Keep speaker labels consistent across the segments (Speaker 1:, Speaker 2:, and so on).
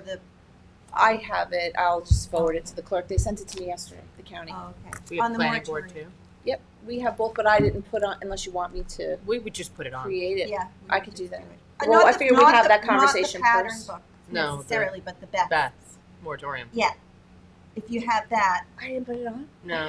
Speaker 1: the,
Speaker 2: I have it, I'll just forward it to the clerk, they sent it to me yesterday, the county.
Speaker 1: oh, okay.
Speaker 3: We
Speaker 1: On
Speaker 3: have
Speaker 1: the
Speaker 3: planning board too.
Speaker 1: moratorium.
Speaker 2: Yep, we have both, but I didn't put on, unless you want me to
Speaker 3: We would just put it on.
Speaker 2: create it.
Speaker 1: Yeah. we
Speaker 2: I
Speaker 1: could
Speaker 2: could
Speaker 1: just
Speaker 2: do that.
Speaker 1: do it. Uh,
Speaker 2: Well,
Speaker 1: not
Speaker 2: I
Speaker 1: the-
Speaker 2: figured we'd
Speaker 1: not
Speaker 2: have
Speaker 1: the-
Speaker 2: that
Speaker 1: not the
Speaker 2: conversation
Speaker 1: pattern
Speaker 2: first.
Speaker 1: book
Speaker 3: No, the-
Speaker 1: Necessarily, but the best.
Speaker 3: Beth's moratorium.
Speaker 1: Yeah. If you have that,
Speaker 2: I didn't put it on?
Speaker 3: No,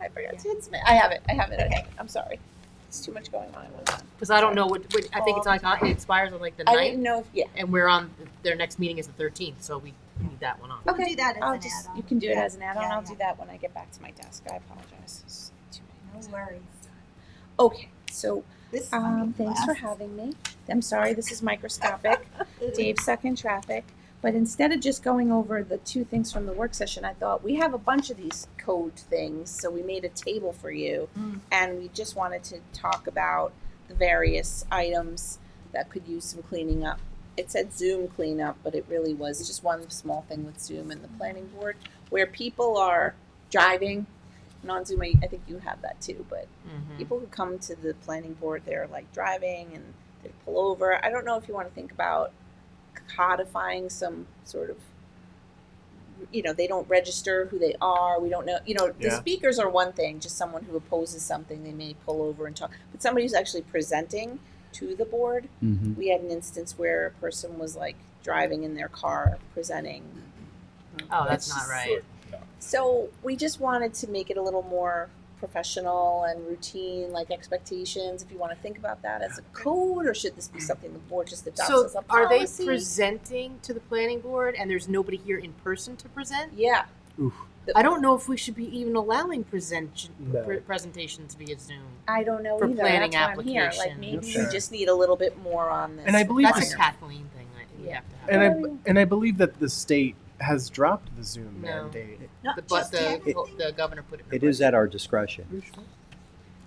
Speaker 2: I forgot to submit, I have it, I have it, I
Speaker 1: Okay.
Speaker 2: have it. I'm sorry. It's too much going on at one time.
Speaker 3: because I don't know what, what- I think it's like, uh, it expires on like the
Speaker 2: I
Speaker 3: ninth,
Speaker 2: didn't know if, yeah,
Speaker 3: and we're on, their next meeting is the thirteenth, so we need that one on.
Speaker 1: we'll
Speaker 2: Okay,
Speaker 1: do that as an
Speaker 2: I'll
Speaker 1: add-on.
Speaker 2: just, you can do it
Speaker 1: Yeah,
Speaker 2: as an add-on,
Speaker 1: yeah,
Speaker 2: I'll
Speaker 1: yeah.
Speaker 2: do that when I get back to my desk, I apologize. It's too many
Speaker 1: No
Speaker 2: things.
Speaker 1: worries.
Speaker 2: Okay, so,
Speaker 1: This is gonna
Speaker 2: um,
Speaker 1: be
Speaker 2: thanks for
Speaker 1: fast.
Speaker 2: having me. I'm sorry, this is microscopic. Dave stuck in traffic. But instead of just going over the two things from the work session, I thought we have a bunch of these code things, so we made a table for you.
Speaker 1: Mm.
Speaker 2: And we just wanted to talk about the various items that could use some cleaning up. It said Zoom cleanup, but it really was just one small thing with Zoom and the planning board, where people are driving. Non Zoom, I I think you have that too, but
Speaker 3: Mhm.
Speaker 2: people who come to the planning board, they're like driving and they pull over. I don't know if you want to think about codifying some sort of, you know, they don't register who they are. We don't know, you know, the
Speaker 4: Yeah.
Speaker 2: speakers are one thing, just someone who opposes something, they may pull over and talk. But somebody who's actually presenting to the board,
Speaker 4: Mm-hmm.
Speaker 2: we had an instance where a person was like driving in their car presenting
Speaker 3: Oh, that's not right.
Speaker 2: so we just wanted to make it a little more professional and routine, like expectations. If you want to think about that as a code, or should this be something the board just adopts
Speaker 3: So
Speaker 2: as a
Speaker 3: are they
Speaker 2: policy?
Speaker 3: presenting to the planning board, and there's nobody here in person to present?
Speaker 2: yeah,
Speaker 3: I don't know if we should be even allowing present,
Speaker 4: No.
Speaker 3: pre- presentations via Zoom.
Speaker 2: I don't know
Speaker 3: For
Speaker 2: either.
Speaker 3: planning
Speaker 2: That's why I'm here. Like
Speaker 3: applications.
Speaker 2: maybe
Speaker 4: Sure.
Speaker 2: we just need a little bit more on this.
Speaker 4: And I believe
Speaker 3: That's a
Speaker 4: Yeah.
Speaker 3: Kathleen thing that we have to have.
Speaker 4: And I and I believe that the state has dropped the Zoom
Speaker 3: No.
Speaker 4: mandate.
Speaker 1: Not
Speaker 3: The, but
Speaker 1: just
Speaker 3: the,
Speaker 1: everything.
Speaker 3: the governor put it in.
Speaker 5: It
Speaker 3: her
Speaker 5: is at our discretion.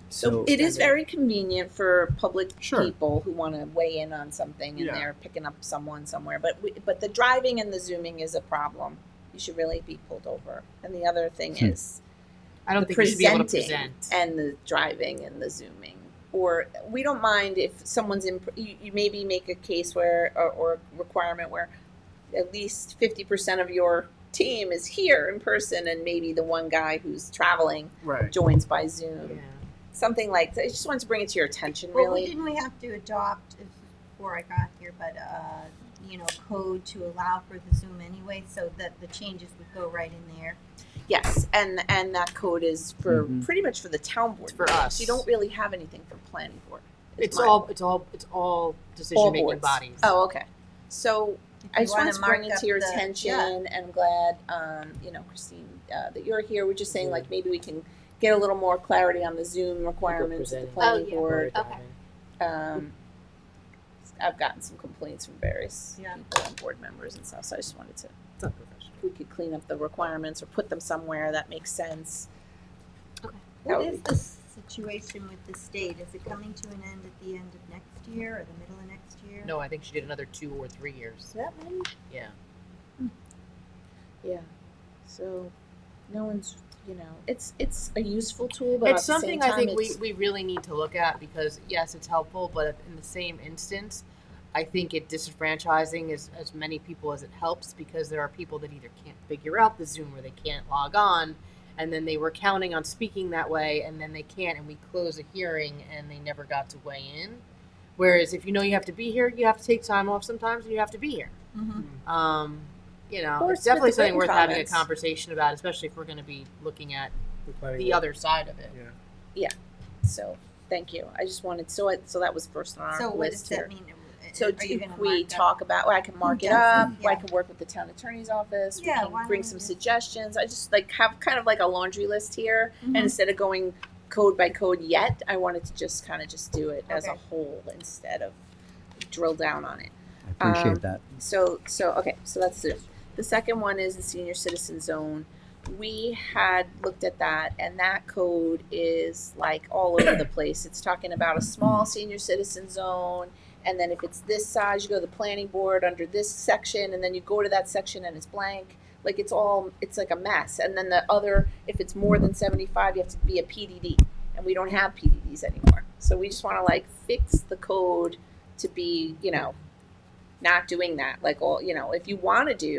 Speaker 2: So it is very convenient for public
Speaker 4: Sure.
Speaker 2: people who want to weigh in on something and
Speaker 4: Yeah.
Speaker 2: they're picking up someone somewhere. But we, but the driving and the zooming is a problem. You should really be pulled over. And the other thing
Speaker 5: Hmm.
Speaker 2: is.
Speaker 3: I don't
Speaker 2: the
Speaker 3: think we should be able to
Speaker 2: presenting
Speaker 3: present.
Speaker 2: and the driving and the zooming. Or we don't mind if someone's in, you, you maybe make a case where, or, or requirement where at least 50% of your team is here in person and maybe the one guy who's traveling
Speaker 4: right.
Speaker 2: joins by Zoom.
Speaker 3: Yeah.
Speaker 2: Something like that. I just wanted to bring it to your attention,
Speaker 1: Well, we
Speaker 2: really.
Speaker 1: didn't we have to adopt, this is before I got here, but, uh, you know, code to allow for the Zoom anyway, so that the changes would go right in there?
Speaker 2: Yes, and and that code is for
Speaker 4: Mhm.
Speaker 2: pretty much for the town board.
Speaker 3: It's for us.
Speaker 2: You don't really have anything for planning board. is
Speaker 3: It's
Speaker 2: my-
Speaker 3: all, it's all, it's all
Speaker 2: all
Speaker 3: decision-making
Speaker 2: boards.
Speaker 3: bodies.
Speaker 2: Oh, okay. So
Speaker 1: If
Speaker 2: I
Speaker 1: you
Speaker 2: just
Speaker 1: wanna
Speaker 2: want to bring
Speaker 1: mark
Speaker 2: it
Speaker 1: up
Speaker 2: to your
Speaker 1: the-
Speaker 2: attention,
Speaker 1: yeah.
Speaker 2: and I'm glad, um, you know, Christine, uh, that you're here. We're just saying,
Speaker 3: Mhm.
Speaker 2: like, maybe we can get a little more clarity on the Zoom requirements at the
Speaker 3: presenting.
Speaker 2: planning
Speaker 6: Oh, yeah.
Speaker 2: board.
Speaker 6: Okay.
Speaker 2: Um, I've gotten some complaints from various
Speaker 1: Yeah.
Speaker 2: people and board members and stuff, so I just wanted to,
Speaker 3: It's unprofessional.
Speaker 2: if we could clean up the requirements or put them somewhere that makes sense.
Speaker 6: Okay.
Speaker 2: That
Speaker 1: What
Speaker 2: would
Speaker 1: is
Speaker 2: be-
Speaker 1: the situation with the state? Is it coming to an end at the end of next year or the middle of next year?
Speaker 3: No, I think she did another two or three years.
Speaker 1: Is that many?
Speaker 3: Yeah.
Speaker 2: Yeah. So, no one's, you know, it's it's a useful tool, but
Speaker 3: It's
Speaker 2: at the same
Speaker 3: something
Speaker 2: time,
Speaker 3: I think we,
Speaker 2: it's,
Speaker 3: we really need to look at because, yes, it's helpful, but in the same instance, I think it disenfranchising as, as many people as it helps because there are people that either can't figure out the Zoom or they can't log on. And then they were counting on speaking that way, and then they can't, and we close a hearing and they never got to weigh in. Whereas if you know you have to be here, you have to take time off sometimes and you have to be here.
Speaker 1: Mm-hmm.
Speaker 3: Um, you know,
Speaker 2: Or
Speaker 3: it's definitely
Speaker 2: with the
Speaker 3: something
Speaker 2: written
Speaker 3: worth having a
Speaker 2: comments.
Speaker 3: conversation about, especially if we're going to be looking at the other side of it.
Speaker 4: Yeah.
Speaker 2: so. Thank you. I just wanted so it, so that was first on our
Speaker 1: So
Speaker 2: list
Speaker 1: what does
Speaker 2: here.
Speaker 1: that mean?
Speaker 2: So
Speaker 1: Are
Speaker 2: do
Speaker 1: you gonna
Speaker 2: we
Speaker 1: mark up-
Speaker 2: talk about, well, I can mark it
Speaker 1: Yes.
Speaker 2: up, I
Speaker 1: Yeah.
Speaker 2: can work with the town attorney's office, we
Speaker 1: Yeah,
Speaker 2: can
Speaker 1: why
Speaker 2: bring
Speaker 1: don't
Speaker 2: some
Speaker 1: we just-
Speaker 2: suggestions, I just like have kind of like a laundry list here. And
Speaker 1: Mhm.
Speaker 2: instead of going code by code yet, I wanted to just kind of just do it as a
Speaker 1: Okay.
Speaker 2: whole instead of drill down on it.
Speaker 5: I
Speaker 2: Um,
Speaker 5: appreciate that.
Speaker 2: So, so, okay, so that's it. The second one is the senior citizen zone. We had looked at that and that code is like all over the place. It's talking about a small senior citizen zone. And then if it's this size, you go to the planning board under this section and then you go to that section and it's blank. Like it's all, it's like a mess. And then the other, if it's more than seventy-five, you have to be a PDD. And we don't have PDDs anymore. So we just wanna like fix the code to be, you know, not doing that. Like all you know, if you want to do